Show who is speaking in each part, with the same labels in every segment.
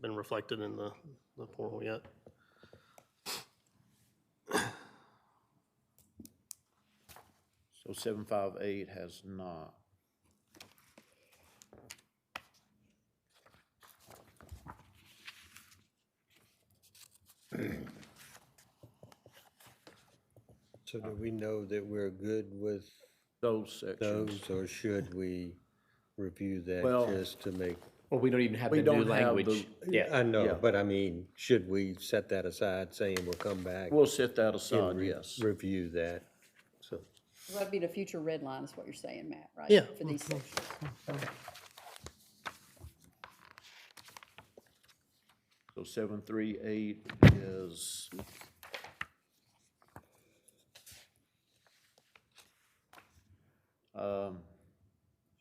Speaker 1: been reflected in the, the portal yet.
Speaker 2: So seven five eight has not.
Speaker 3: So do we know that we're good with
Speaker 2: Those sections.
Speaker 3: those, or should we review that
Speaker 2: Well-
Speaker 3: just to make?
Speaker 4: Well, we don't even have
Speaker 2: We
Speaker 4: the new
Speaker 2: don't have the-
Speaker 4: language. Yeah,
Speaker 2: yeah.
Speaker 3: I know, but I mean, should we set that aside, saying we'll come back?
Speaker 2: We'll set that aside,
Speaker 3: and re-
Speaker 2: yes.
Speaker 3: Review that, so.
Speaker 5: That'd be the future red line is what you're saying, Matt, right?
Speaker 1: Yeah.
Speaker 5: For these sections.
Speaker 2: So seven three eight is. Um,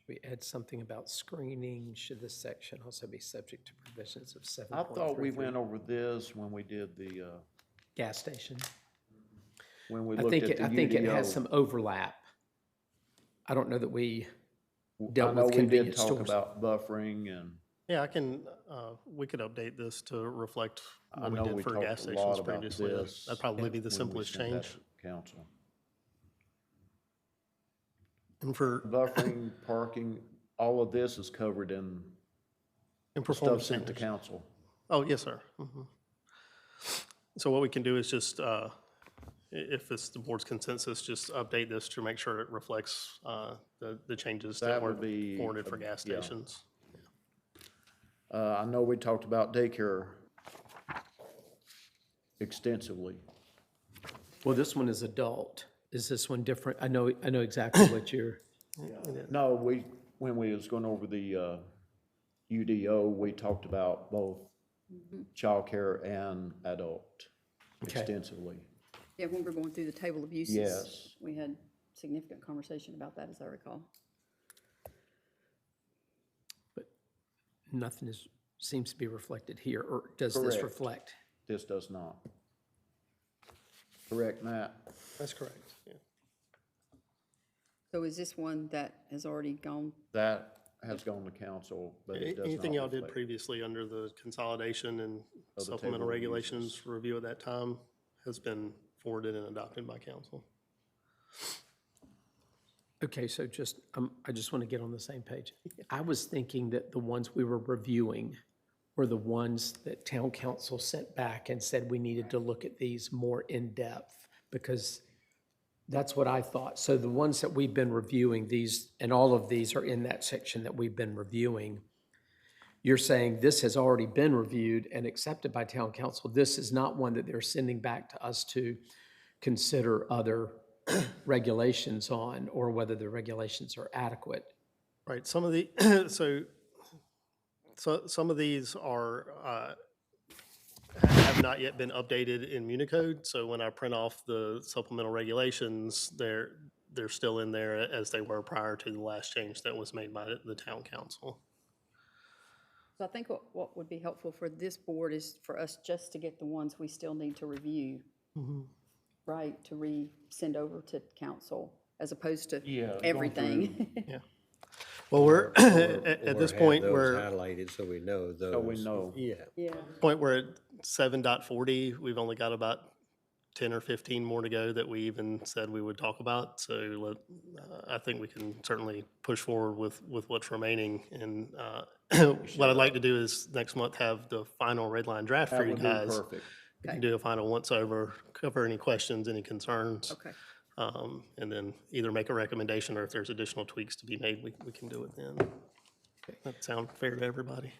Speaker 6: We add something about screening, should this section also be subject to provisions of seven
Speaker 2: I
Speaker 6: point three?
Speaker 2: thought we went over this when we did the, uh,
Speaker 6: Gas station.
Speaker 2: when we
Speaker 6: I
Speaker 2: looked
Speaker 6: think,
Speaker 2: at
Speaker 6: it-
Speaker 2: the
Speaker 6: I think it has
Speaker 2: UDO.
Speaker 6: some overlap. I don't know that we,
Speaker 2: I
Speaker 6: dealt
Speaker 2: know
Speaker 6: with
Speaker 2: we did
Speaker 6: convenience
Speaker 2: talk
Speaker 6: stores.
Speaker 2: About buffering and
Speaker 1: Yeah, I can, uh, we could update this to reflect
Speaker 2: I
Speaker 1: what we
Speaker 2: know
Speaker 1: did
Speaker 2: we
Speaker 1: for
Speaker 2: talked
Speaker 1: gas
Speaker 2: a lot
Speaker 1: stations
Speaker 2: about
Speaker 1: previously. That'd-
Speaker 2: this
Speaker 1: That'd probably be
Speaker 2: when
Speaker 1: the
Speaker 2: we
Speaker 1: simplest
Speaker 2: sent that
Speaker 1: change.
Speaker 2: to Council.
Speaker 1: And for,
Speaker 2: Buffering, parking, all of this is covered in
Speaker 1: and
Speaker 2: stuff
Speaker 1: performance
Speaker 2: sent to
Speaker 1: standards.
Speaker 2: council.
Speaker 1: Oh, yes, sir. Mhm. So what we can do is just, uh, i- if it's the board's consensus, just update this to make sure it reflects uh, the, the changes that
Speaker 2: That
Speaker 1: were
Speaker 2: would be
Speaker 1: forwarded
Speaker 2: a-
Speaker 1: for gas
Speaker 2: yeah.
Speaker 1: stations.
Speaker 2: Uh, I know we talked about daycare extensively.
Speaker 6: well, this one is adult. Is this one different? I know, I know exactly what you're,
Speaker 2: No, we, when we was going over the, uh, UDO, we talked about both childcare and adult
Speaker 6: Okay.
Speaker 2: extensively.
Speaker 5: Yeah, when we're going through the table of uses.
Speaker 2: Yes.
Speaker 5: We had significant conversation about that, as I recall.
Speaker 6: nothing is, seems to be reflected here, or does this
Speaker 2: Correct.
Speaker 6: reflect?
Speaker 2: This does not. Correct, Matt?
Speaker 1: That's correct. Yeah.
Speaker 5: So is this one that has already gone?
Speaker 2: That has gone to council, but it does not.
Speaker 1: Anything y'all did
Speaker 2: reflect. Oh,
Speaker 1: previously under the consolidation and
Speaker 2: the
Speaker 1: supplemental
Speaker 2: table of uses.
Speaker 1: regulations review at that time has been forwarded and adopted by council.
Speaker 6: Okay, so just, um, I just want to get on the same page. I was thinking that the ones we were reviewing were the ones that town council sent back and said we needed to look at these more in-depth, because that's what I thought. So the ones that we've been reviewing, these, and all of these are in that section that we've been reviewing. You're saying this has already been reviewed and accepted by town council. This is not one that they're sending back to us to consider other regulations on or whether the regulations are adequate.
Speaker 1: Right, some of the, so, so, some of these are, uh, have not yet been updated in Municode, so when I print off the supplemental regulations, they're, they're still in there as they were prior to the last change that was made by the- the town council.
Speaker 5: So I think what, what would be helpful for this board is for us just to get the ones we still need to review. Right, to re-send over to council, as opposed to everything.
Speaker 1: Well, we're, at, at
Speaker 3: or
Speaker 1: this
Speaker 3: have
Speaker 1: point,
Speaker 3: those
Speaker 1: we're,
Speaker 3: Highlighted, so we know those.
Speaker 2: So we know.
Speaker 3: Yeah,
Speaker 5: Yeah,
Speaker 1: point we're at seven dot forty, we've only got about ten or fifteen more to go that we even said we would talk about, so let, uh, I think we can certainly push forward with, with what's remaining, and, uh, what I'd like to do is next month have the final red line draft for
Speaker 2: That
Speaker 1: you
Speaker 2: would be
Speaker 1: guys.
Speaker 2: perfect.
Speaker 1: You can do a final once-over, cover any questions, any concerns,
Speaker 5: okay.
Speaker 1: um, and then either make a recommendation, or if there's additional tweaks to be made, we, we can do it then. That sound fair to everybody?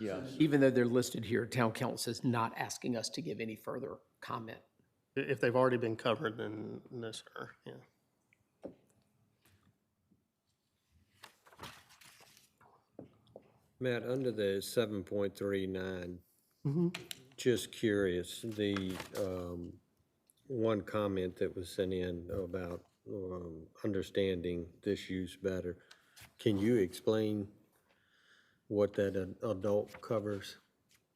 Speaker 2: Yes.
Speaker 6: Even though they're listed here, town council is not asking us to give any further comment.
Speaker 1: I- If they've already been covered, then no, sir, yeah.
Speaker 3: Matt, under the seven point three nine, just curious, the, um, one comment that was sent in about, um, understanding this use better. Can you explain what that ad- adult covers,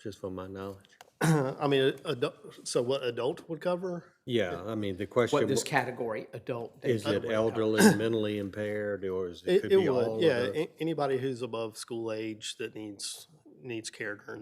Speaker 3: just for my knowledge?
Speaker 1: I mean, a- adult, so what adult would cover?
Speaker 3: Yeah, I mean, the question.
Speaker 6: What this
Speaker 3: wa-
Speaker 6: category, adult, they-
Speaker 3: Is it elderly, mentally impaired, or is it
Speaker 1: It,
Speaker 3: could
Speaker 1: it
Speaker 3: be all
Speaker 1: would,
Speaker 3: of
Speaker 1: yeah.
Speaker 3: the-
Speaker 1: a- Anybody who's above school age that needs, needs care during